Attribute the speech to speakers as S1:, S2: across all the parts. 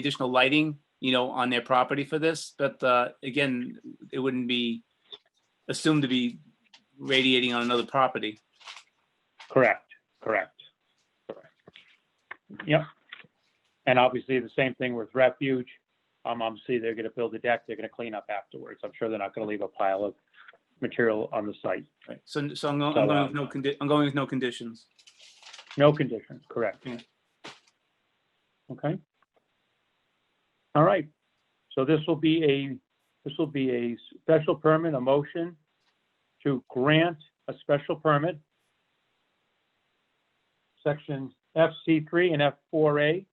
S1: additional lighting, you know, on their property for this, but uh, again, it wouldn't be assumed to be radiating on another property.
S2: Correct, correct. correct. Yep. And obviously, the same thing with refuge. Um, obviously, they're gonna build a deck, they're gonna clean up afterwards. I'm sure they're not gonna leave a pile of material on the site.
S1: Right, so, so I'm going,
S2: So,
S1: I'm going with
S2: um,
S1: no condi, I'm going with no conditions.
S2: No conditions, correct.
S1: Yeah.
S2: Okay. All right, so this will be a, this will be a special permit, a motion to grant a special permit. Section FC three and F four A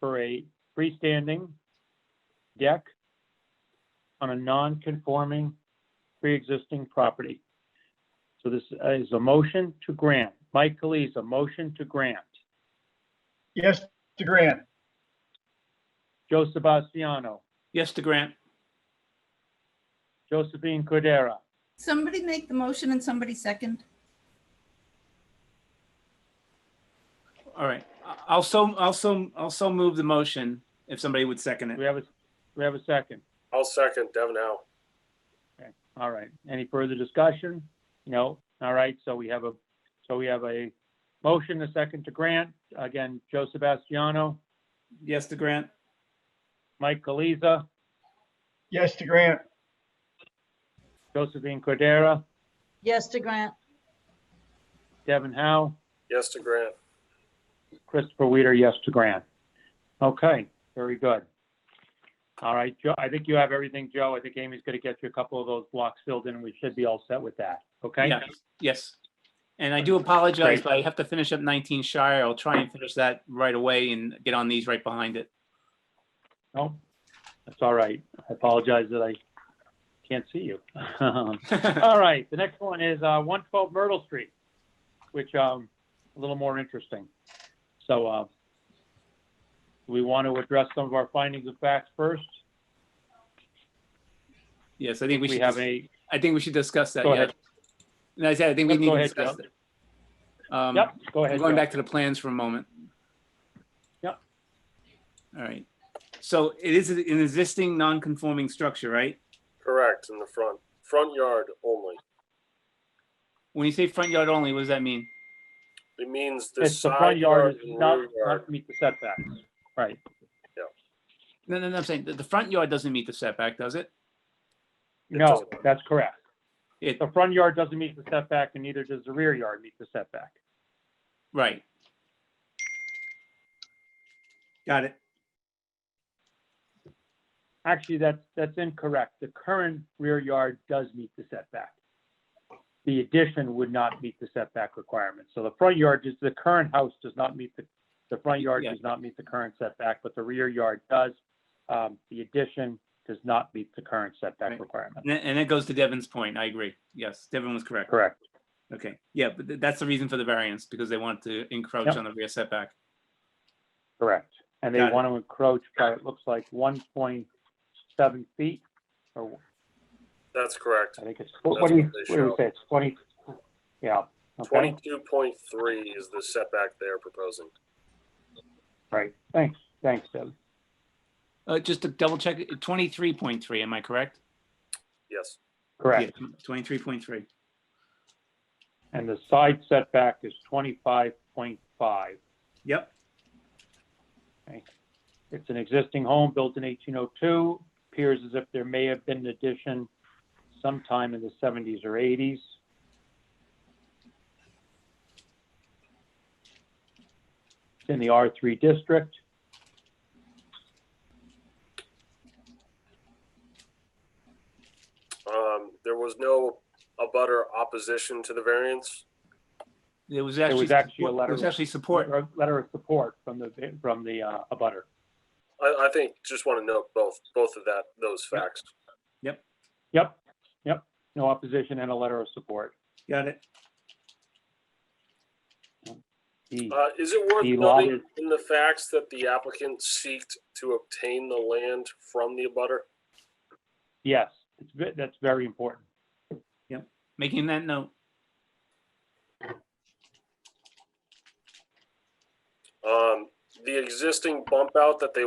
S2: for a freestanding deck on a non-conforming pre-existing property. So this uh, is a motion to grant. Mike Calise, a motion to grant.
S3: Yes, to grant.
S2: Joe Sebastiano,
S1: Yes to grant.
S2: Josephine Cordera,
S4: Somebody make the motion and somebody second.
S1: All right, I- I'll so, I'll so, I'll so move the motion if somebody would second
S2: we
S1: it.
S2: have a, we have a second.
S5: I'll second Devin Howe.
S2: All right, any further discussion? No, all right, so we have a, so we have a motion, a second to grant. Again, Joe Sebastiano,
S1: Yes to grant.
S2: Mike Calise,
S3: Yes, to grant.
S2: Josephine Cordera,
S6: Yes to grant.
S2: Devin Howe,
S5: Yes to grant.
S2: Christopher Weeder, yes to grant. Okay, very good. All right, Joe, I think you have everything, Joe. I think Amy's gonna get you a couple of those blocks filled in, and we should be all set with that, okay?
S1: Yeah, Yes. And I do apologize, but I have to finish up 19 Shire. I'll try and finish that right away and get on these right behind it.
S2: No, that's all right. I apologize that I can't see you. All right, the next one is uh, 112 Myrtle Street, which, um, a little more interesting. So, uh, do we want to address some of our findings of facts first?
S1: Yes, I think we
S2: We
S1: should,
S2: have
S1: dis-
S2: a,
S1: I think we should discuss that.
S2: Go
S1: yeah.
S2: ahead.
S1: And I said, I think we
S2: Yep,
S1: need
S2: go
S1: to
S2: ahead,
S1: discuss
S2: Joe.
S1: it. Um,
S2: yep, go ahead.
S1: I'm going
S2: Joe.
S1: back to the plans for a moment.
S2: Yep.
S1: All right. So it is an existing non-conforming structure, right?
S5: Correct, in the front. Front yard only.
S1: When you say front yard only, what does that mean?
S5: It means the
S2: It's the
S5: side
S2: front yard
S5: yard
S2: is
S5: and
S2: not,
S5: rear
S2: not
S5: yard.
S2: meet the setbacks, right?
S1: No, no, no, I'm saying the, the front yard doesn't meet the setback, does it?
S5: It
S2: No,
S5: doesn't.
S2: that's correct.
S1: It,
S2: The front yard doesn't meet the setback and neither does the rear yard meet the setback.
S1: right. Got it.
S2: Actually, that's, that's incorrect. The current rear yard does meet the setback. The addition would not meet the setback requirement. So the front yard is, the current house does not meet the, the front yard
S1: Yeah.
S2: does not meet the current setback, but the rear yard does. Um, the addition does not meet the current setback
S1: Right.
S2: requirement.
S1: And that- and that goes to Devin's point. I agree. Yes, Devin was correct.
S2: Correct.
S1: Okay, yeah, but th- that's the reason for the variance, because they want to encroach
S2: Yep.
S1: on the rear setback.
S2: Correct. And they
S1: Got it.
S2: want to encroach by, it looks like one point seven feet, or
S5: That's correct.
S2: I think it's, what
S5: That's
S2: what do you,
S5: what they
S2: what do we
S5: show.
S2: say? It's twenty, yeah. okay.
S5: Twenty-two point three is the setback they're proposing.
S2: Right, thanks, thanks, Deb.
S1: Uh, just to double check, twenty-three point three, am I correct?
S5: Yes,
S2: Correct.
S1: Twenty-three point three.
S2: And the side setback is twenty-five point five.
S1: Yep,
S2: It's an existing home built in eighteen oh two. Appears as if there may have been an addition sometime in the seventies or eighties. It's in the R three district.
S5: um, there was no abutter opposition to the variance.
S1: it was
S2: There
S1: actually.
S2: was actually a
S1: support-
S2: letter
S1: It was
S2: of-
S1: actually support.
S2: Or Letter of support from the, from the, uh, abutter.
S5: I, I think, just want to note both, both of that, those
S1: Yeah.
S5: facts.
S2: Yep, yep, no opposition and a letter of support.
S1: Got it.
S2: The-
S5: Uh, is it worth
S2: The lot
S5: noting in the facts that the applicant seeked to obtain the land from the abutter?
S2: Yes, it's, ve- that's very important.
S1: Making that note,
S5: Um, the existing bump out that they